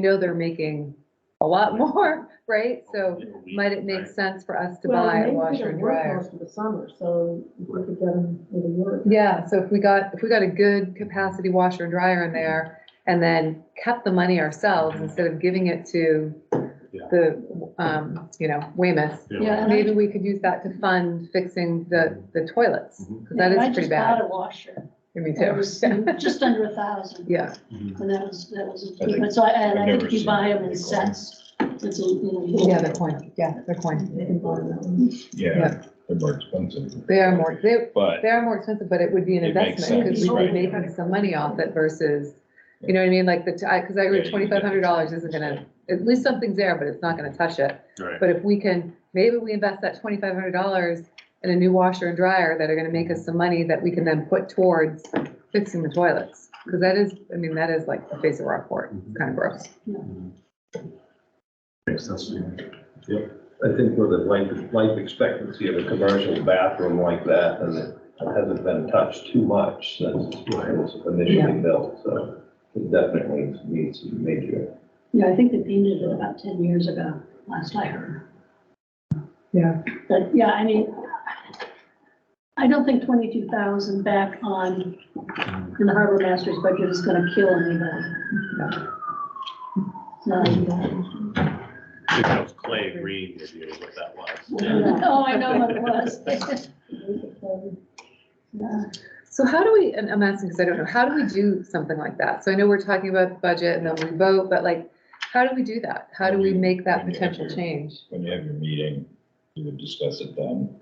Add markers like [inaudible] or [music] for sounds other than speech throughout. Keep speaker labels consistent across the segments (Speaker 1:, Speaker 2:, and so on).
Speaker 1: know they're making a lot [laughs] more, right? So
Speaker 2: It'll be-
Speaker 1: might it make
Speaker 2: right.
Speaker 1: sense for us to
Speaker 3: Well,
Speaker 1: buy a
Speaker 3: maybe they
Speaker 1: washer
Speaker 3: don't
Speaker 1: and
Speaker 3: work
Speaker 1: dryer?
Speaker 3: Most of the summer, so if we could get them with a work.
Speaker 1: Yeah, so if we got, if we got a good capacity washer and dryer in there and then kept the money ourselves instead of giving it to
Speaker 2: Yeah.
Speaker 1: the, um, you know, Weymouth,
Speaker 2: Yeah.
Speaker 4: Yeah, and I-
Speaker 1: maybe we could use that to fund fixing the, the toilets.
Speaker 2: Mhm.
Speaker 1: Cause that
Speaker 4: and I
Speaker 1: is pretty
Speaker 4: just
Speaker 1: bad.
Speaker 4: bought a washer.
Speaker 1: [laughs] Me
Speaker 4: It
Speaker 1: too.
Speaker 4: was [laughs] just under a thousand.
Speaker 1: Yeah,
Speaker 2: Mhm.
Speaker 4: And that was, that was,
Speaker 5: I think-
Speaker 4: but so I, and
Speaker 5: I've
Speaker 4: I
Speaker 5: never
Speaker 4: think you
Speaker 5: seen
Speaker 4: buy them in
Speaker 5: anything
Speaker 4: sets. It's a, you know. you-
Speaker 1: yeah, they're coin, yeah, they're coin.
Speaker 3: They can buy that one.
Speaker 1: Yeah.
Speaker 5: Yeah, they're more expensive.
Speaker 1: They are more, they,
Speaker 5: But,
Speaker 1: They are more expensive, but it would be an
Speaker 5: It makes
Speaker 1: investment, because
Speaker 5: sense,
Speaker 1: we'd be
Speaker 5: right.
Speaker 1: making some money off it versus, you know what I mean, like the, t- I, because I agree,
Speaker 5: Yeah, you
Speaker 1: twenty-five
Speaker 5: get
Speaker 1: hundred
Speaker 5: it.
Speaker 1: dollars isn't gonna, at least something's there, but it's not gonna touch it.
Speaker 2: Right.
Speaker 1: But if we can, maybe we invest that twenty-five hundred dollars in a new washer and dryer that are gonna make us some money that we can then put towards fixing the toilets. Because that is, I mean, that is like the face of Rockport, it's kind of gross.
Speaker 6: Makes sense to me. Yep. I think with the life, life expectancy of a commercial bathroom like that, and it hasn't been touched too much since it was initially built, so it definitely needs some major.
Speaker 4: Yeah, I think they painted it about ten years ago, last I heard.
Speaker 1: Yeah.
Speaker 4: But, yeah, I mean, I don't think twenty-two thousand back on, in the harbor master's budget is gonna kill anybody. No.
Speaker 2: I think that was Clay agreeing with you what
Speaker 1: [laughs]
Speaker 2: that was.
Speaker 4: [laughs] Oh, I know what it [laughs] was. Yeah.
Speaker 1: [laughs] So how do we, and I'm asking because I don't know, how do we do something like that? So I know we're talking about the budget and then we vote, but like, how do we do that? How do we make that
Speaker 5: When you enter-
Speaker 1: potential change?
Speaker 5: when you have your meeting, you would discuss it then.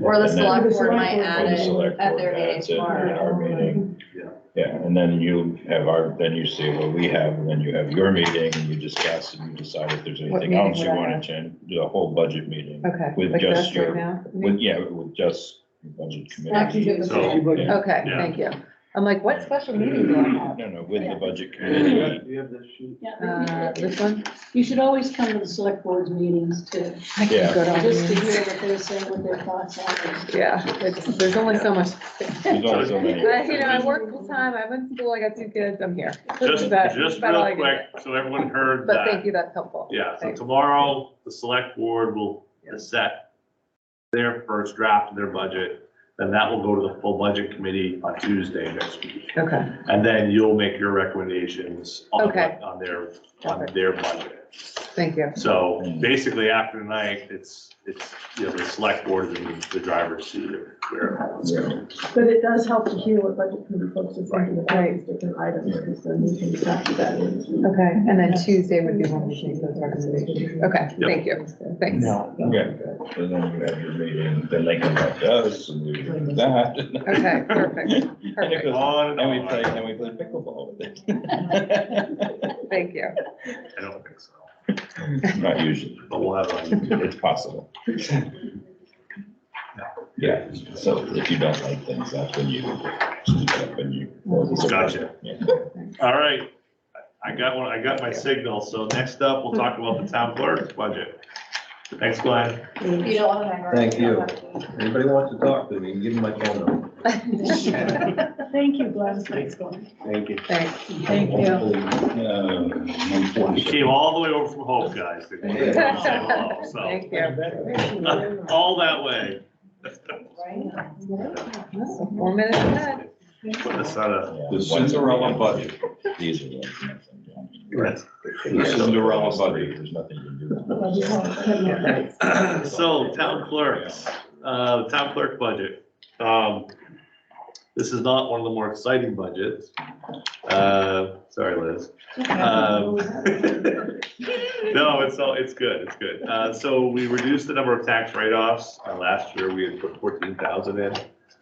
Speaker 7: Or the
Speaker 5: And then-
Speaker 7: select board
Speaker 3: Or
Speaker 7: might
Speaker 3: the
Speaker 5: Or
Speaker 7: add
Speaker 5: the
Speaker 7: it
Speaker 5: select
Speaker 7: at
Speaker 5: board
Speaker 7: their meeting
Speaker 5: adds it At
Speaker 7: tomorrow.
Speaker 5: our meeting.
Speaker 2: Yeah.
Speaker 5: Yeah, and then you have our, then you see what we have, and then you have your meeting, and you discuss, and you decide if there's
Speaker 1: What
Speaker 5: anything
Speaker 1: meeting
Speaker 5: else you
Speaker 1: would I
Speaker 5: wanna
Speaker 1: have?
Speaker 5: change, do a whole budget meeting.
Speaker 1: Okay.
Speaker 5: With
Speaker 1: like
Speaker 5: just
Speaker 1: this right
Speaker 5: your-
Speaker 1: now?
Speaker 5: With, yeah, with just your budget
Speaker 3: Actually,
Speaker 5: committee.
Speaker 3: give us
Speaker 2: So-
Speaker 3: a-
Speaker 5: Yeah.
Speaker 1: Okay,
Speaker 2: Yeah.
Speaker 1: thank you. I'm like, what special meeting do I have?
Speaker 5: No, no, with the budget
Speaker 6: Do
Speaker 5: committee.
Speaker 6: you have this sheet?
Speaker 1: Uh,
Speaker 4: Yeah.
Speaker 1: this one?
Speaker 4: You should always come to the select board's meetings too,
Speaker 1: I
Speaker 5: Yeah.
Speaker 1: can go to all
Speaker 4: just to
Speaker 1: these.
Speaker 4: hear what they're saying, what their thoughts are.
Speaker 1: Yeah, it's, there's only so much.
Speaker 5: There's only so many.
Speaker 1: But, you know, I work full time, I went to school, I got two kids, I'm here.
Speaker 2: Just,
Speaker 1: That-
Speaker 2: just
Speaker 1: about all I can
Speaker 2: real quick,
Speaker 1: say.
Speaker 2: so everyone heard
Speaker 1: But thank
Speaker 2: that.
Speaker 1: you, that's helpful.
Speaker 2: Yeah, so
Speaker 1: Thanks.
Speaker 2: tomorrow, the select board will set their first draft of their budget. Then that will go to the full budget committee on Tuesday next week.
Speaker 1: Okay,
Speaker 2: And then you'll make your recommendations on,
Speaker 1: Okay.
Speaker 2: what- on their, on
Speaker 1: Perfect.
Speaker 2: their budget.
Speaker 1: thank you.
Speaker 2: So basically after tonight, it's, it's, you know, the select board is in the driver's seat of where it's going.
Speaker 3: But it does help to hear what budget committee folks are thinking about these different items, because then you can factor that in.
Speaker 1: Okay, and then Tuesday would be when we make those recommendations. Okay,
Speaker 2: Yep.
Speaker 1: thank you, thanks.
Speaker 5: Yeah, and then you have your meeting, then they come back to us, and we do that.
Speaker 1: Okay, perfect,
Speaker 5: [laughs] And it
Speaker 1: perfect,
Speaker 5: goes
Speaker 2: On and
Speaker 5: And we play,
Speaker 2: on.
Speaker 5: and we play pickleball with
Speaker 1: [laughs]
Speaker 5: it.
Speaker 1: thank you.
Speaker 2: I don't think so,
Speaker 5: Not usually,
Speaker 2: but we'll have on YouTube.
Speaker 5: it's possible. Yeah, so if you don't like things, that's when you speak up and you.
Speaker 2: Gotcha.
Speaker 5: Yeah.
Speaker 2: All right, I got one, I got my signal, so next up, we'll talk about the town clerk's budget. Thanks, Glenn.
Speaker 7: You don't want to hang around.
Speaker 6: Thank you.
Speaker 7: don't have to.
Speaker 6: Anybody wants to talk to me, give them my phone number.
Speaker 4: Thank you, Glenn. Thanks, Glenn.
Speaker 6: Thank you.
Speaker 1: Thanks.
Speaker 4: Thank you.
Speaker 5: Um,
Speaker 2: You came all the way over from home, guys. to come and say hello,
Speaker 1: [laughs]
Speaker 2: So,
Speaker 1: Thank you.
Speaker 2: all that way. [laughs]
Speaker 1: Four minutes ahead.
Speaker 2: Put this on a,
Speaker 5: Yeah.
Speaker 8: The Cinderella budget.
Speaker 5: These are. the-
Speaker 2: Yes.
Speaker 5: Yeah.
Speaker 8: Cinderella budget.
Speaker 5: There's nothing you can do.
Speaker 3: But you have to-
Speaker 2: So, town clerks. uh, town clerk budget. Um, this is not one of the more exciting budgets. Uh, sorry, Liz. Um,
Speaker 6: Um,
Speaker 3: [laughs]
Speaker 6: [laughs]
Speaker 2: No, it's all, it's good, it's good. Uh, so we reduced the number of tax write-offs. Uh, last year, we had put fourteen thousand in.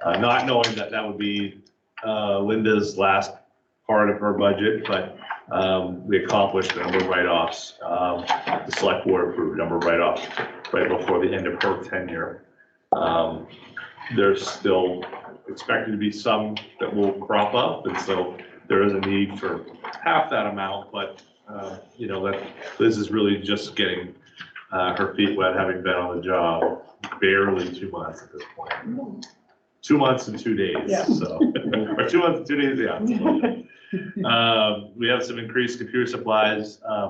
Speaker 2: Uh, not knowing that that would be, uh, Linda's last part of her budget, but, um, we accomplished a number of write-offs. Um, the select board approved a number of write-offs right before the end of her tenure. Um, there's still expected to be some that will crop up, and so there is a need for half that amount, but, uh, you know, that, Liz is really just getting, uh, her feet wet, having been on the job barely two months at this [laughs] point. Two months and two days, so, or two months and two days, yeah. Um, we have some increased computer supplies, um,